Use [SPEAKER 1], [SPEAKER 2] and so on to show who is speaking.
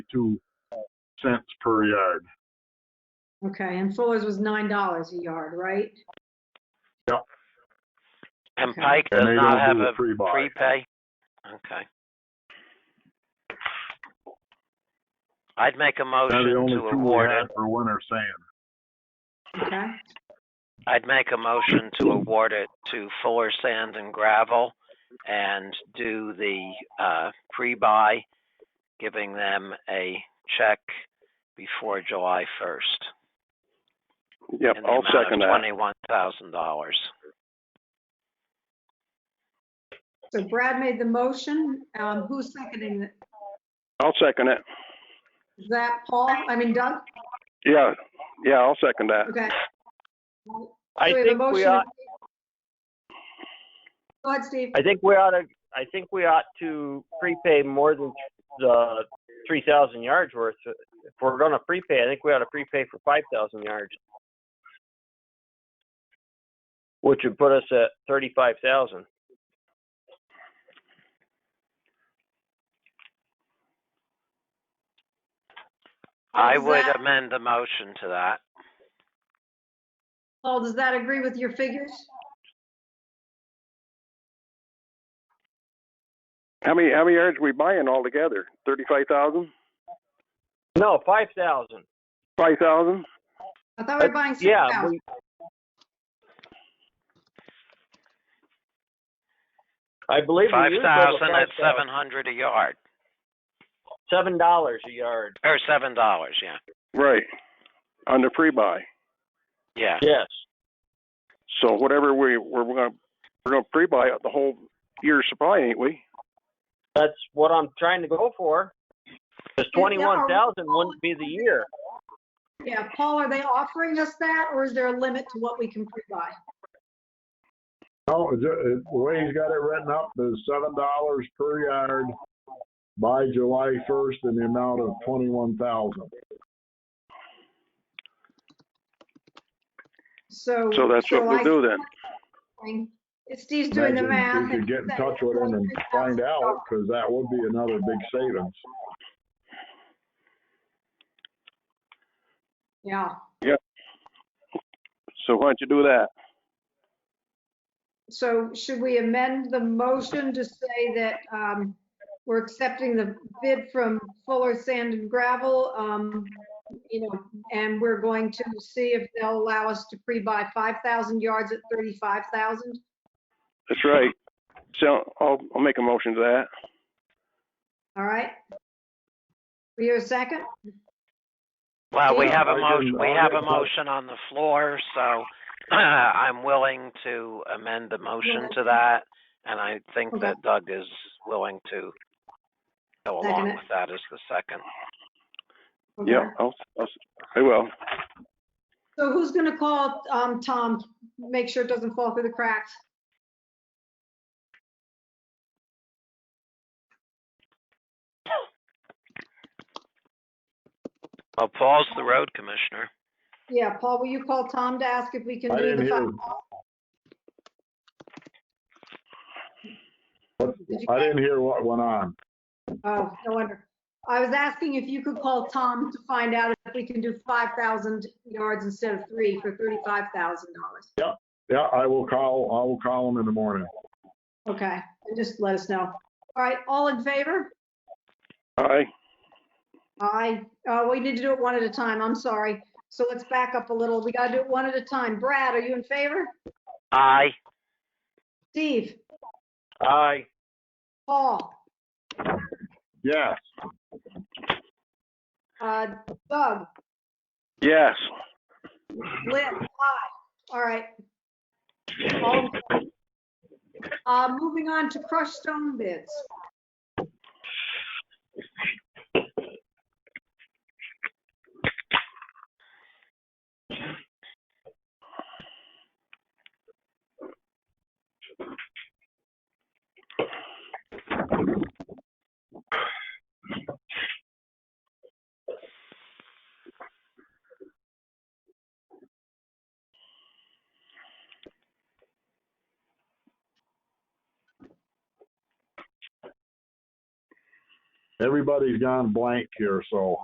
[SPEAKER 1] two cents per yard.
[SPEAKER 2] Okay, and Fuller's was nine dollars a yard, right?
[SPEAKER 3] And
[SPEAKER 2] Okay.
[SPEAKER 3] Pike does
[SPEAKER 1] And they
[SPEAKER 3] not
[SPEAKER 1] don't
[SPEAKER 3] have
[SPEAKER 1] do
[SPEAKER 3] a
[SPEAKER 1] a pre-buy.
[SPEAKER 3] prepay? Okay. I'd make a
[SPEAKER 1] They're
[SPEAKER 3] motion
[SPEAKER 1] the only
[SPEAKER 3] Oh, to
[SPEAKER 1] two we
[SPEAKER 3] award
[SPEAKER 1] had
[SPEAKER 3] it.
[SPEAKER 1] for winter sand.
[SPEAKER 2] Okay,
[SPEAKER 3] I'd make a motion to award it to Fuller Sand and Gravel and do the, uh, pre-buy, giving them a check before July first.
[SPEAKER 4] Yep, I'll second that.
[SPEAKER 3] Twenty-one thousand dollars.
[SPEAKER 2] so Brad made the motion. Um, who's seconding it?
[SPEAKER 4] I'll second it.
[SPEAKER 2] Is that Paul? I mean Doug?
[SPEAKER 4] Yeah, yeah, I'll second that.
[SPEAKER 2] Okay.
[SPEAKER 5] I
[SPEAKER 2] So have a
[SPEAKER 5] think we
[SPEAKER 2] motion
[SPEAKER 5] ought,
[SPEAKER 2] Go ahead, Steve.
[SPEAKER 5] I think we ought to, I think we ought to prepay more than the three thousand yards worth. If we're gonna prepay, I think we ought to prepay for five thousand yards. Which would put us at thirty-five thousand.
[SPEAKER 3] I
[SPEAKER 2] Is
[SPEAKER 3] would
[SPEAKER 2] that-
[SPEAKER 3] amend the motion to that.
[SPEAKER 2] Paul, does that agree with your figures?
[SPEAKER 4] How many, how many yards are we buying altogether? Thirty-five thousand?
[SPEAKER 5] No, five thousand.
[SPEAKER 4] Five thousand?
[SPEAKER 2] I thought we were buying six
[SPEAKER 5] Uh, Yeah,
[SPEAKER 2] thousand.
[SPEAKER 5] we. I believe we
[SPEAKER 3] Five
[SPEAKER 5] used over
[SPEAKER 3] thousand at seven hundred a yard,
[SPEAKER 5] Seven dollars a yard.
[SPEAKER 3] or seven dollars, yeah,
[SPEAKER 4] Right, on the pre-buy.
[SPEAKER 3] yeah.
[SPEAKER 5] Yes.
[SPEAKER 4] So whatever we, we're gonna, we're gonna pre-buy the whole year's supply, ain't we?
[SPEAKER 5] That's what I'm trying to go for. Because
[SPEAKER 2] Yeah, yeah,
[SPEAKER 5] twenty-one thousand wouldn't be the year.
[SPEAKER 2] Yeah, Paul, are they offering us that or is there a limit to what we can pre-buy?
[SPEAKER 1] No, it's, uh, the way he's got it written up is seven dollars per yard by July first in the amount of twenty-one thousand.
[SPEAKER 2] Mm-hmm. So.
[SPEAKER 4] So that's what we'll do then.
[SPEAKER 2] then. Steve's doing the math.
[SPEAKER 1] We could
[SPEAKER 2] and
[SPEAKER 1] get in
[SPEAKER 2] saying
[SPEAKER 1] touch with him and find out, cause that would be another big savings.
[SPEAKER 2] Yeah,
[SPEAKER 4] So why don't you do that?
[SPEAKER 2] so should we amend the motion to say that um, we're accepting the bid from Fuller Sand and Gravel? um, You know, and we're going to see if they'll allow us to pre-buy 5,000 yards at 35,000?
[SPEAKER 4] That's right. So I'll, I'll make a motion to that.
[SPEAKER 2] All right? We hear a second?
[SPEAKER 3] Well, we
[SPEAKER 2] Yeah,
[SPEAKER 3] have a
[SPEAKER 1] I
[SPEAKER 3] motion,
[SPEAKER 1] can-
[SPEAKER 3] we
[SPEAKER 1] I'll
[SPEAKER 3] have a
[SPEAKER 1] make a-
[SPEAKER 3] motion on the floor, so I'm willing to amend the motion to that. And I think
[SPEAKER 2] Okay.
[SPEAKER 3] that Doug is willing to go
[SPEAKER 2] Second
[SPEAKER 3] along
[SPEAKER 2] it.
[SPEAKER 3] with that as the second.
[SPEAKER 2] Okay.
[SPEAKER 4] Yeah, I'll, I'll, I will.
[SPEAKER 2] So who's going to call um, Tom, make sure it doesn't fall through the cracks?
[SPEAKER 3] Well, Paul's the road commissioner.
[SPEAKER 2] Yeah, Paul, will you call Tom to ask if we can
[SPEAKER 1] I
[SPEAKER 2] do the
[SPEAKER 1] didn't
[SPEAKER 2] five?
[SPEAKER 1] hear. I didn't hear what went on.
[SPEAKER 2] Oh, no wonder. I was asking if you could call Tom to find out if we can do 5,000 yards instead of three for $35,000.
[SPEAKER 1] Yeah, I will call, I will call him in the morning.
[SPEAKER 2] Okay, and just let us know. All right, all in favor?
[SPEAKER 4] Aye.
[SPEAKER 2] Aye. Uh, We need to do it one at a time. I'm sorry. So let's back up a little. We got to do it one at a time. Brad, are you in favor?
[SPEAKER 3] Aye,
[SPEAKER 2] Steve?
[SPEAKER 5] Aye.
[SPEAKER 2] Paul?
[SPEAKER 1] Yes.
[SPEAKER 2] uh, Doug?
[SPEAKER 4] Yes.
[SPEAKER 2] Liz, aye. All right. All in favor. Uh, moving on to crushed stone bids.
[SPEAKER 1] everybody's gone blank here, so.